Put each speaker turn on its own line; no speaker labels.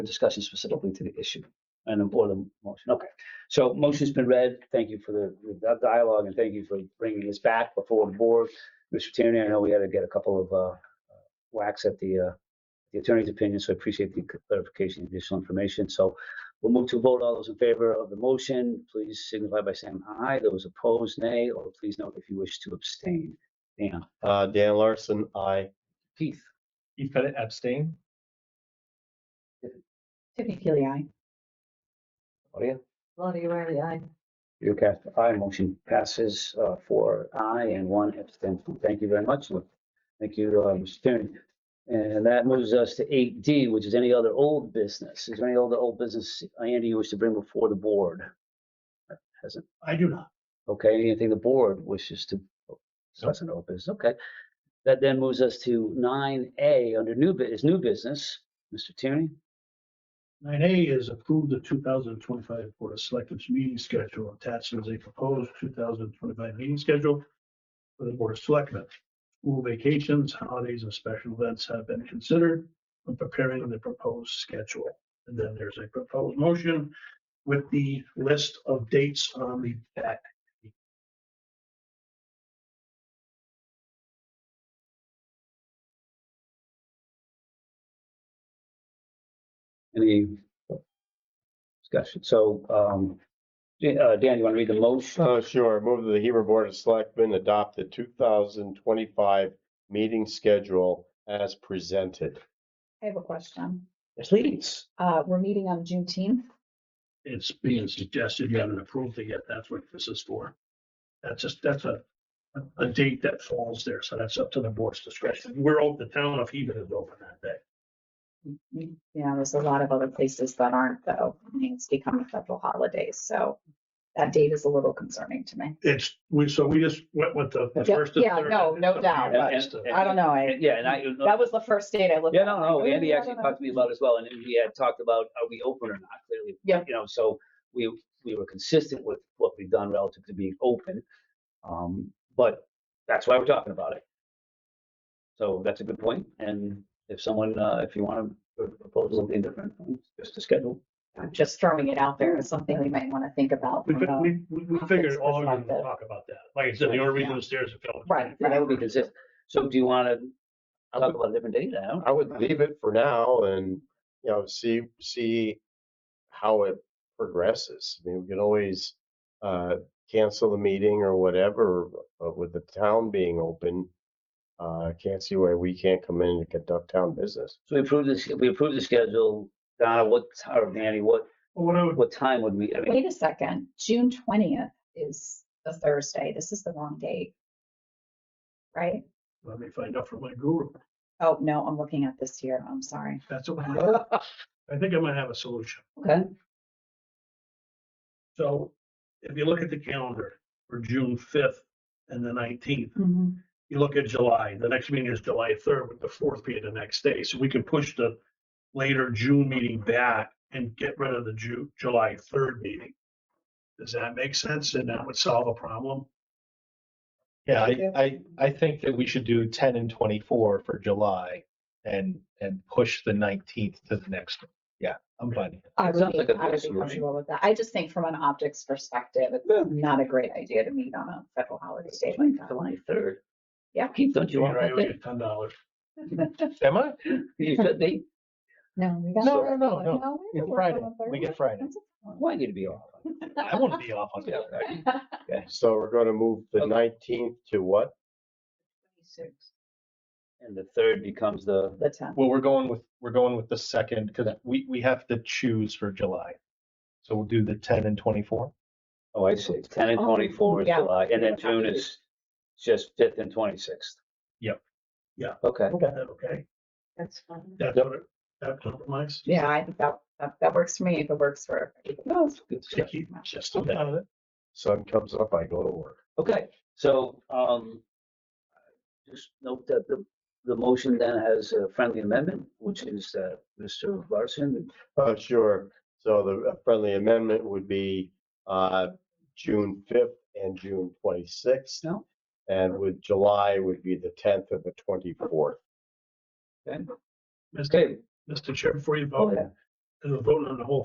discussion specifically to the issue and or the motion. Okay. So motion's been read. Thank you for the- the dialogue and thank you for bringing this back before the board. Mr. Tierney, I know we had to get a couple of uh, whacks at the uh, the attorney's opinion, so I appreciate the clarification, additional information. So we'll move to a vote. All those in favor of the motion, please signify by saying aye. Those opposed, nay, or please note if you wish to abstain. Dan,
Uh, Dan Larson, I.
Keith,
Keith Pettit abstain.
Tiffany Kelly, aye.
Maria?
Claudia Riley, aye.
You cast aye, motion passes uh, four aye and one abstention. Thank you very much. Lou. Thank you, uh, Mr. Tierney. And that moves us to eight D, which is any other old business. Is there any other old business, Andy, you wish to bring before the board? Hasn't,
I do not.
okay, anything the board wishes to discuss in old business, okay. That then moves us to nine A, under new, bu- is new business. Mr. Tierney?
Nine A is approve the two thousand twenty-five Board of Selectmen's meeting schedule attached as a proposed two thousand twenty-five meeting schedule for the Board of Selectmen. School vacations, holidays, and special events have been considered when preparing the proposed schedule. And then there's a proposed motion with the list of dates on the back.
Any discussion? So, um, Dan, uh, Dan, you want to read the motion?
Oh, sure. Move that the Hebrew Board of Selectmen adopt the two thousand twenty-five meeting schedule as presented.
I have a question.
Please.
Uh, we're meeting on Juneteenth.
It's being suggested, you haven't approved it yet, that's what this is for. That's just, that's a, a- a date that falls there, so that's up to the board's discretion. We're open, the town of Hebron is open that day.
You know, there's a lot of other places that aren't though. I mean, It's become a federal holiday, so that date is a little concerning to me.
It's, we, so we just went with the the
Yeah,
first. and
yeah,
third.
no, no doubt.
That's the-
I don't know. I,
Yeah, and I,
that was the first date I looked.
yeah,
at.
no, no,
Like, oh,
Andy
yeah,
actually
no, no.
talked to me about it as well, and we had talked about, are we open or not, clearly.
Yeah.
You know, so we, we were consistent with what we've done relative to being open. Um, but that's why we're talking about it. So that's a good point, and if someone, uh, if you want to propose something different, just to schedule.
I'm just throwing it out there as something we might want to think about.
We,
from the-
we, we- we figured all of them
Perspective.
talk about that. Like I said, the only reason it's there is if.
Right.
Yeah, That would be consistent. So do you want to talk about a different date now?
I would leave it for now and, you know, see, see how it progresses. I mean, we can always, uh, cancel the meeting or whatever, but with the town being open, uh, I can't see why we can't come in and conduct town business.
So we approve this, we approve the schedule. Donna, what, or Danny, what,
Well, What I would,
what time would we, I mean,
Wait a second, June twentieth is the Thursday. This is the wrong date. Right?
let me find out from my guru.
Oh, no, I'm looking at this year. I'm sorry.
That's what I, I think I might have a solution.
okay,
So if you look at the calendar for June fifth and the nineteenth, you look at July, the next meeting is July third, with the fourth being the next day. So we could push the later June meeting back and get rid of the Ju- July third meeting. Does that make sense? And that would solve a problem?
Yeah, I, I, I think that we should do ten and twenty-four for July and, and push the nineteenth to the next. one. Yeah, I'm fine.
I would
Sounds
be,
like a
I would be
solution.
comfortable with that. I just think from an optics perspective, it's not a great idea to meet on a federal holiday day like that.
July third.
Yeah.
Keith, don't you want
Right,
that
we
date?
get ten dollars.
Am I?
You said they
No, we got.
No, no, no,
we
no.
don't
It's
work
Friday.
on the
We get
third.
Friday.
That's
want you to be off.
I wouldn't be off on
Yeah,
that.
right.
So we're gonna move the
Okay.
nineteenth to what?
a-
And the third becomes the,
The tenth.
Well, we're going with, we're going with the second because we, we have to choose for July. So we'll do the ten and twenty-four.
oh, I see, ten and
Oh,
twenty-four is
yeah.
July, and then
Yeah.
June is just fifth and twenty-sixth.
Yep.
Yeah.
Okay,
Okay,
That's fine.
that's what, it- that compromise?
Yeah, I think that, that, that works for me. If it works for.
No, it's good stuff.
Sticky, just
I'm
a-
fine with it.
Sun comes up, I go to work.
Okay, so, um, just note that the, the motion then has a friendly amendment, which is, uh, Mr. Larson.
Uh, sure. So the friendly amendment would be, uh, June fifth and June twenty-sixth.
No.
And with July would be the tenth and the twenty-fourth.
Mr.
Okay,
Mr. Chair, before you
oh,
vote,
yeah,
and we're voting on the whole